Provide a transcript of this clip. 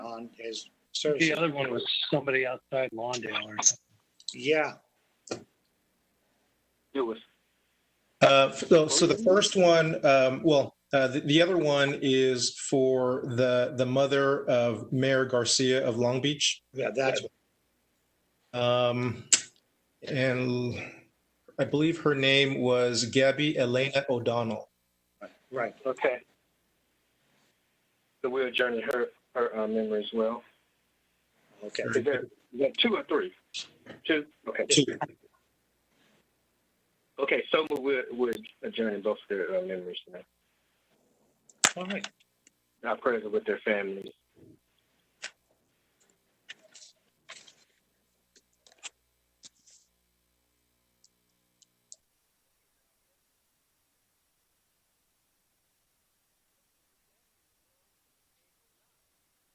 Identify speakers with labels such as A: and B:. A: on his services.
B: The other one was somebody outside Lawndale or something.
A: Yeah,
C: It was,
D: Uh, so, so the first one, um, well, uh, the, the other one is for the the mother of Mayor Garcia of Long Beach,
A: yeah, that's,
D: um, and I believe her name was Gabby Elena O'Donnell.
A: right.
C: okay. So we adjourn to her, her uh, memory as well.
A: Okay.
C: Is there, is there two or three? Two? Okay.
D: Two.
C: Okay, so we're, we're adjourning both their uh, memories now.
A: All right.
C: Our prayers are with their families.